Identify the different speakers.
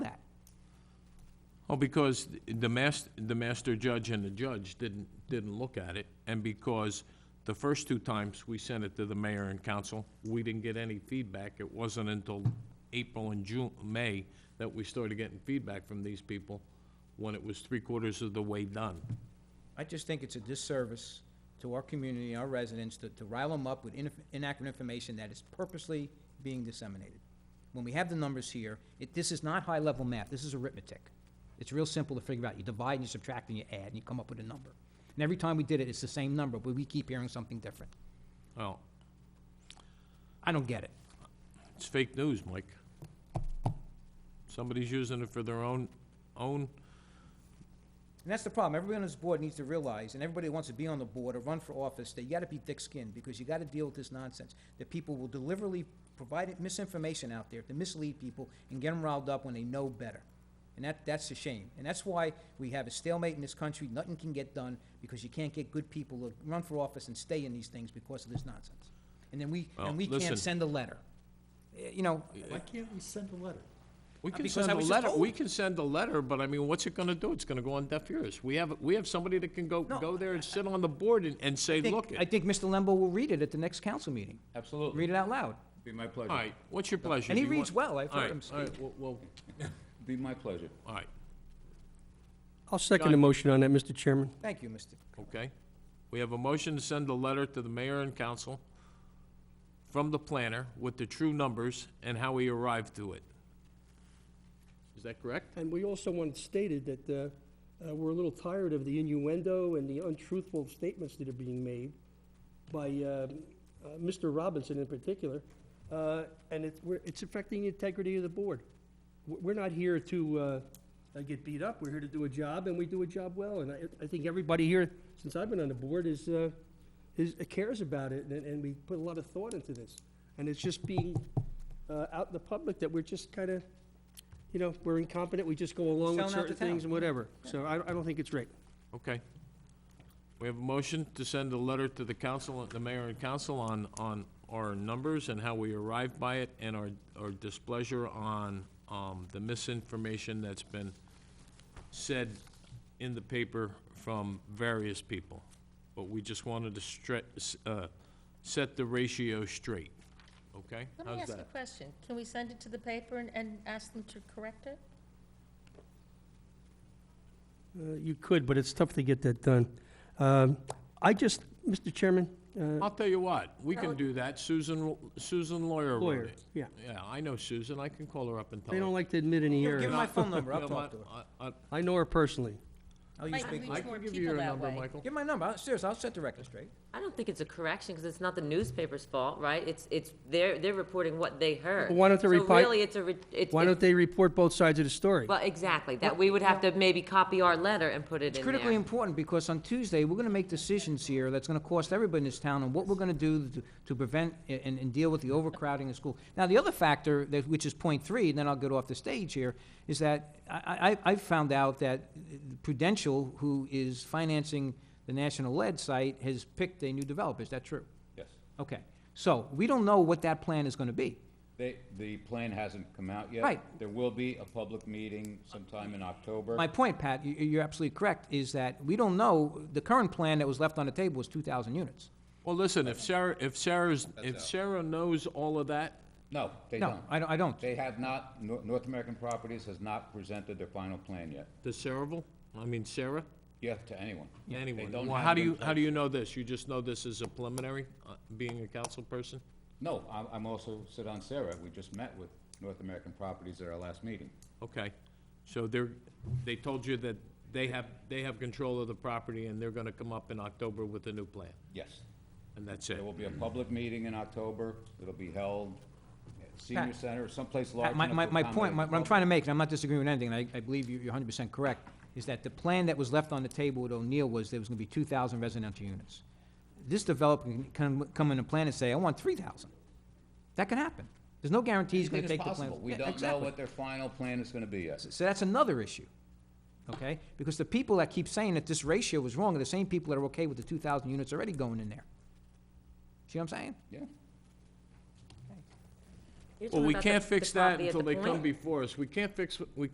Speaker 1: Oh, because the mas, the master judge and the judge didn't, didn't look at it, and because the first two times we sent it to the mayor and council, we didn't get any feedback. It wasn't until April and June, May, that we started getting feedback from these people, when it was three quarters of the way done.
Speaker 2: I just think it's a disservice to our community, our residents, to, to rile them up with inaf- inaccurate information that is purposely being disseminated. When we have the numbers here, it, this is not high-level math, this is arithmetic. It's real simple to figure out, you divide and you subtract and you add, and you come up with a number. And every time we did it, it's the same number, but we keep hearing something different.
Speaker 1: Well,
Speaker 2: I don't get it.
Speaker 1: it's fake news, Mike. Somebody's using it for their own, own,
Speaker 2: And that's the problem. Everybody on this board needs to realize, and everybody who wants to be on the board or run for office, that you gotta be thick-skinned, because you gotta deal with this nonsense. That people will deliberately provide misinformation out there to mislead people and get them riled up when they know better. And that, that's a shame. And that's why we have a stalemate in this country. Nothing can get done, because you can't get good people to run for office and stay in these things because of this nonsense. And then we,
Speaker 1: Well,
Speaker 2: and we
Speaker 1: listen.
Speaker 2: can't send a letter. Eh, You know,
Speaker 3: Why can't we send a letter?
Speaker 1: We
Speaker 2: Uh,
Speaker 1: can
Speaker 2: because
Speaker 1: send
Speaker 2: I
Speaker 1: a
Speaker 2: was just
Speaker 1: letter,
Speaker 2: told.
Speaker 1: we can send a letter, but I mean, what's it gonna do? It's gonna go on deaf ears. We have, we have somebody that can go,
Speaker 2: No,
Speaker 1: go there and sit on the board and, and say,
Speaker 2: I think-
Speaker 1: look. it."
Speaker 2: I think Mr. Lembo will read it at the next council meeting.
Speaker 4: Absolutely.
Speaker 2: Read it out loud.
Speaker 4: Be my pleasure.
Speaker 1: All right, what's your pleasure?
Speaker 2: And he
Speaker 1: Do you
Speaker 2: reads
Speaker 1: want-
Speaker 2: well. I've
Speaker 1: all
Speaker 2: heard
Speaker 1: right,
Speaker 2: him
Speaker 1: All
Speaker 2: speak.
Speaker 1: right, well, well,
Speaker 4: Be my pleasure.
Speaker 1: all right,
Speaker 5: I'll second the motion on that, Mr. Chairman.
Speaker 2: Thank you, Mr.
Speaker 1: okay. We have a motion to send a letter to the mayor and council from the planner with the true numbers and how we arrived to it. Is that correct?
Speaker 5: And we also wanted stated that uh, uh, we're a little tired of the innuendo and the untruthful statements that are being made by uh, uh, Mr. Robinson in particular, uh, and it's, we're- it's affecting the integrity of the board. W- We're not here to uh, uh, get beat up, we're here to do a job, and we do a job well, and I I think everybody here, since I've been on the board, is, uh, is, cares about it, and and we put a lot of thought into this. And it's just being uh, out in the public that we're just kind of, you know, we're incompetent, we just go along with
Speaker 2: Selling out the
Speaker 5: certain things
Speaker 2: town.
Speaker 5: and whatever. So I I don't think it's right.
Speaker 1: Okay. We have a motion to send a letter to the council, the mayor and council on, on our numbers and how we arrived by it and our, our displeasure on, um, the misinformation that's been said in the paper from various people. But we just wanted to stre- s uh, set the ratio straight, okay?
Speaker 6: Let me
Speaker 1: How's
Speaker 6: ask a
Speaker 1: that?
Speaker 6: question. Can we send it to the paper and, and ask them to correct it?
Speaker 5: Uh, You could, but it's tough to get that done. Um, I just, Mr. Chairman, uh,
Speaker 1: I'll tell you what, we can
Speaker 6: No.
Speaker 1: do that. Susan, Susan Lawyer wrote
Speaker 5: lawyer,
Speaker 1: it.
Speaker 5: yeah,
Speaker 1: Yeah, I know Susan. I can call her up and tell her.
Speaker 5: they don't like to admit any
Speaker 2: Give him
Speaker 5: errors.
Speaker 2: my phone number, I'll
Speaker 1: You know
Speaker 2: talk to her.
Speaker 1: what? I- I-
Speaker 5: I know her personally.
Speaker 2: I'll use
Speaker 6: Might
Speaker 2: big,
Speaker 6: reach
Speaker 1: I
Speaker 6: more
Speaker 1: can give you
Speaker 6: people
Speaker 1: your
Speaker 6: that
Speaker 1: number,
Speaker 6: way.
Speaker 1: Michael.
Speaker 2: give my number, I'll- seriously, I'll set the record straight.
Speaker 7: I don't think it's a correction, because it's not the newspaper's fault, right? It's, it's, they're, they're reporting what they heard.
Speaker 5: Well, why don't they
Speaker 7: So
Speaker 5: reply-
Speaker 7: really, it's a, re- it's.
Speaker 5: Why don't they report both sides of the story?
Speaker 7: Well, exactly, that we would have to maybe copy our letter and put it
Speaker 2: It's
Speaker 7: in there.
Speaker 2: critically important, because on Tuesday, we're gonna make decisions here that's gonna cost everybody in this town on what we're gonna do to- to prevent a- and, and deal with the overcrowding in school. Now, the other factor, that, which is point three, and then I'll get off the stage here, is that I, I, I found out that Prudential, who is financing the National Lead site, has picked a new developer, is that true?
Speaker 4: Yes.
Speaker 2: Okay, so, we don't know what that plan is gonna be.
Speaker 4: They, the plan hasn't come out yet.
Speaker 2: Right.
Speaker 4: There will be a public meeting sometime in October.
Speaker 2: My point, Pat, you- you're absolutely correct, is that we don't know, the current plan that was left on the table was 2,000 units.
Speaker 1: Well, listen, if Sarah, if Sarah's, if
Speaker 4: out.
Speaker 1: Sarah knows all of that,
Speaker 4: No, they
Speaker 2: No,
Speaker 4: don't.
Speaker 2: I don't- I don't.
Speaker 4: They have not, Nor- North American Properties has not presented their final plan yet.
Speaker 1: to Sarahville, I mean Sarah,
Speaker 4: Yeah, to anyone. They
Speaker 1: anyone.
Speaker 4: don't
Speaker 1: Well,
Speaker 4: have
Speaker 1: how
Speaker 4: it
Speaker 1: do
Speaker 4: in
Speaker 1: you, how do
Speaker 4: place.
Speaker 1: you know this? You just know this is a preliminary, uh, being a council person?
Speaker 4: No, I'm, I'm also sit on Sarah. We just met with North American Properties at our last meeting.
Speaker 1: Okay. So they're, they told you that they have, they have control of the property and they're gonna come up in October with a new plan,
Speaker 4: Yes.
Speaker 1: and that's it.
Speaker 4: There will be a public meeting in October. It'll be held at Senior
Speaker 2: Pat.
Speaker 4: Center, someplace large
Speaker 2: Pat, My,
Speaker 4: enough
Speaker 2: my,
Speaker 4: to
Speaker 2: my point,
Speaker 4: accommodate
Speaker 2: my-
Speaker 4: the
Speaker 2: what I'm trying to
Speaker 4: public.
Speaker 2: make, and I'm not disagreeing with anything, and I, I believe you- you're 100% correct, is that the plan that was left on the table with O'Neill was there was going to be 2,000 residential units. This developer can come, come in a plan and say, I want 3,000. That can happen. There's no guarantee he's going to
Speaker 4: Anything
Speaker 2: take
Speaker 4: is
Speaker 2: the plan.
Speaker 4: possible. We
Speaker 2: Yeah,
Speaker 4: don't know
Speaker 2: exactly.
Speaker 4: what their final plan is gonna be yet.
Speaker 2: So that's another issue, okay? Because the people that keep saying that this ratio is wrong are the same people that are okay with the 2,000 units already going in there. See what I'm saying?
Speaker 4: Yeah.
Speaker 7: You're
Speaker 1: Well,
Speaker 7: talking
Speaker 1: we
Speaker 7: about the-
Speaker 1: can't
Speaker 7: the
Speaker 1: fix that
Speaker 7: copy at
Speaker 1: until
Speaker 7: the
Speaker 1: they come
Speaker 7: point?
Speaker 1: before us. We can't fix, we